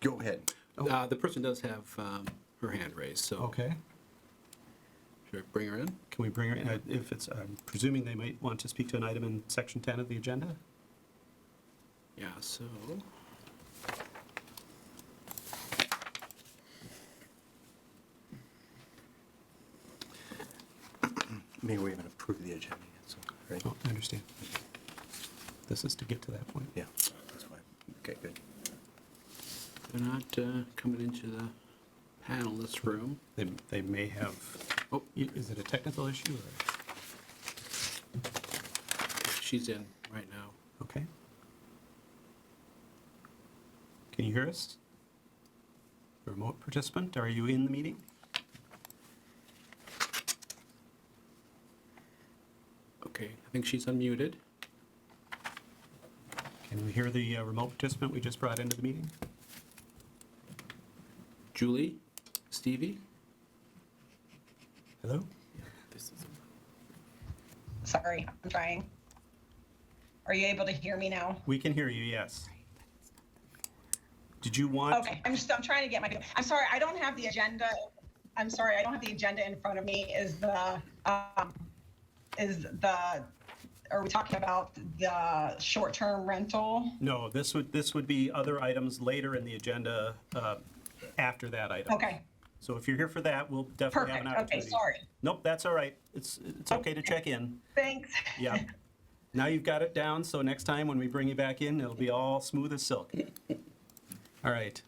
Go ahead. Uh, The person does have um, her hand raised, so. Okay, Should I bring her in? can we bring her, uh, if it's, I'm presuming they might want to speak to an item in section 10 of the agenda? Yeah, so. Maybe we haven't approved the agenda yet, so, right? Oh, I understand. This is to get to that point. Yeah, that's why. Okay, good. They're not uh, coming into the panelist room. They, they may have, oh, i- is it a technical issue or, She's in right now. okay? Can you hear us? Remote participant, are you in the meeting? Okay, I think she's unmuted. Can we hear the uh, remote participant we just brought into the meeting? Julie? Stevie? Hello? Sorry, I'm trying. Are you able to hear me now? We can hear you, yes. Did you want? Okay, I'm just, I'm trying to get my, I'm sorry, I don't have the agenda. I'm sorry, I don't have the agenda in front of me. Is the, um, is the, are we talking about the short-term rental? No, this would, this would be other items later in the agenda uh, after that item. Okay, So if you're here for that, we'll definitely have an Perfect. Okay, opportunity. sorry. Nope, that's all right. It's, it's okay to check in. thanks. Yeah. Now you've got it down, so next time when we bring you back in, it'll be all smooth as silk. All right.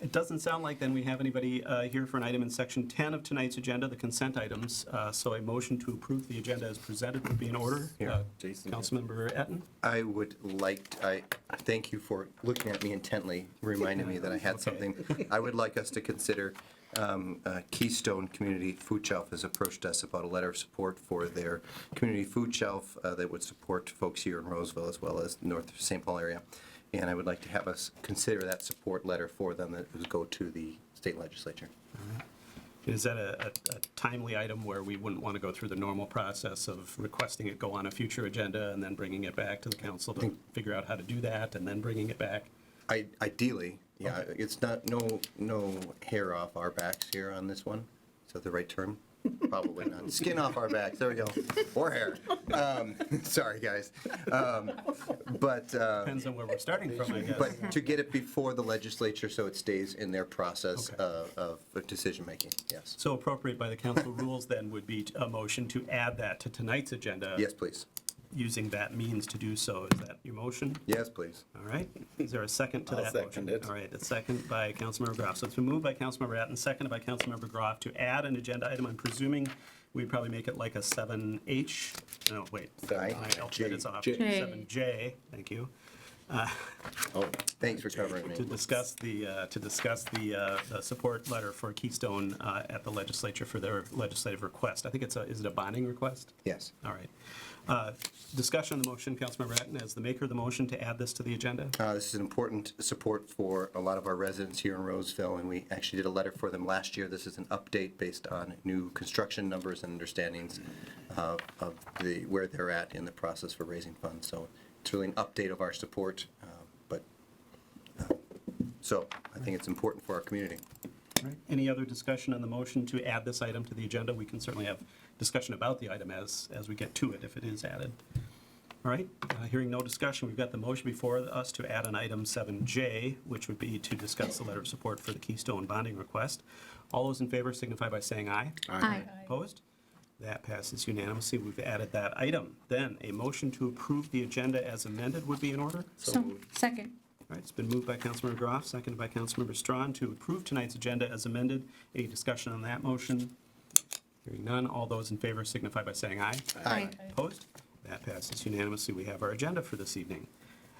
It doesn't sound like then we have anybody uh, here for an item in section 10 of tonight's agenda, the consent items. Uh, So a motion to approve the agenda as presented would be in order. Here, Uh, Jason. Councilmember Etten? I would like, I thank you for looking at me intently, reminding me that I had Okay. something. I would like us to consider um, uh, Keystone Community Food Shelf has approached us about a letter of support for their community food shelf uh, that would support folks here in Roseville as well as north of St. Paul area. And I would like to have us consider that support letter for them that would go to the state legislature. Is that a a- a timely item where we wouldn't want to go through the normal process of requesting it go on a future agenda and then bringing it back to the council to figure out how to do that and then bringing it back? I- Ideally, yeah, it's not, no, no hair off our backs here on this one. Is that the right term? Probably not. Skin off our backs, there we go. Or hair. Um, Sorry, guys. Um, But, uh, Depends on where we're starting from, I guess. but to get it before the legislature so it stays in their process Okay. uh, of decision-making, yes. So appropriate by the council rules then would be a motion to add that to tonight's agenda. Yes, please. Using that means to do so. Is that your motion? Yes, please. All right. Is there a second to I'll that second motion? it. All right, a second by Councilmember Groff. So it's been moved by Councilmember Atten, seconded by Councilmember Groff to add an agenda item. I'm presuming we'd probably make it like a 7H. No, wait. Aye. My alphabet is off. J. 7J, thank you. Oh, Thanks for covering to me. discuss the, uh, to discuss the, uh, the support letter for Keystone uh, at the legislature for their legislative request. I think it's a, is it a bonding request? Yes. All right. Uh, Discussion on the motion, Councilmember Atten, as the maker of the motion to add this to the agenda. Uh, This is an important support for a lot of our residents here in Roseville, and we actually did a letter for them last year. This is an update based on new construction numbers and understandings uh, of the, where they're at in the process for raising funds. So it's really an update of our support, uh, but, uh, so I think it's important for our community. All right. Any other discussion on the motion to add this item to the agenda? We can certainly have discussion about the item as, as we get to it, if it is added. All right, uh, hearing no discussion, we've got the motion before us to add an item 7J, which would be to discuss the letter of support for the Keystone bonding request. All those in favor signify by saying aye. Aye. Opposed? That passes unanimously. We've added that item. Then, a motion to approve the agenda as amended would be in order? So, second. All right, it's been moved by Councilmember Groff, seconded by Councilmember Strawn to approve tonight's agenda as amended. Any discussion on that motion? Hearing none, all those in favor signify by saying aye. Aye. Opposed? That passes unanimously. We have our agenda for this evening.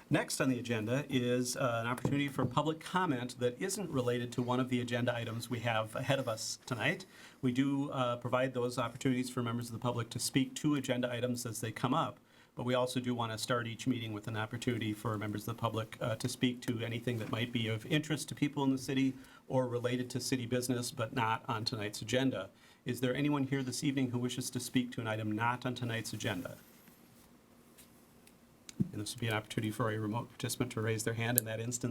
Next on the agenda is uh, an opportunity for public comment that isn't related to one of the agenda items we have ahead of us tonight. We do uh, provide those opportunities for members of the public to speak to agenda items as they come up, but we also do want to start each meeting with an opportunity for members of the public uh, to speak to anything that might be of interest to people in the city or related to city business, but not on tonight's agenda. Is there anyone here this evening who wishes to speak to an item not on tonight's agenda? And this would be an opportunity for a remote participant to raise their hand in that instance.